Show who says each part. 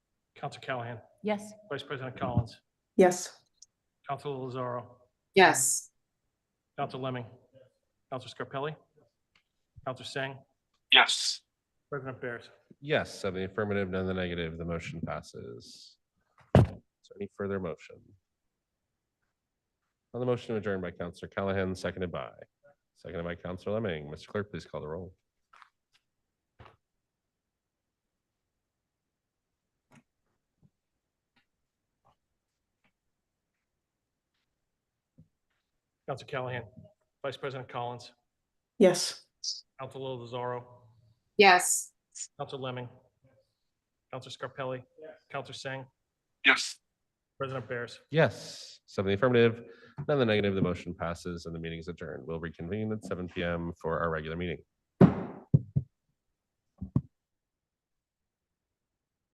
Speaker 1: Council Callahan,
Speaker 2: Yes.
Speaker 1: Vice President Collins,
Speaker 3: Yes.
Speaker 1: Council Lozaro,
Speaker 4: yes,
Speaker 1: Council Lemming, Council Scarpelli, Council Singh,
Speaker 5: yes,
Speaker 1: President Bears.
Speaker 6: Yes, seven the affirmative, none in the negative. The motion passes. So any further motion? On the motion to adjourn by Counselor Callahan, seconded by, seconded by Counselor Lemming. Mr. Clerk, please call the roll.
Speaker 1: Council Callahan, Vice President Collins,
Speaker 3: Yes.
Speaker 1: Council Lozaro,
Speaker 4: yes.
Speaker 1: Council Lemming, Council Scarpelli, Council Singh,
Speaker 5: yes.
Speaker 1: President Bears.
Speaker 6: Yes, seven in the affirmative, none in the negative. The motion passes and the meeting is adjourned. We'll reconvene at seven PM for our regular meeting.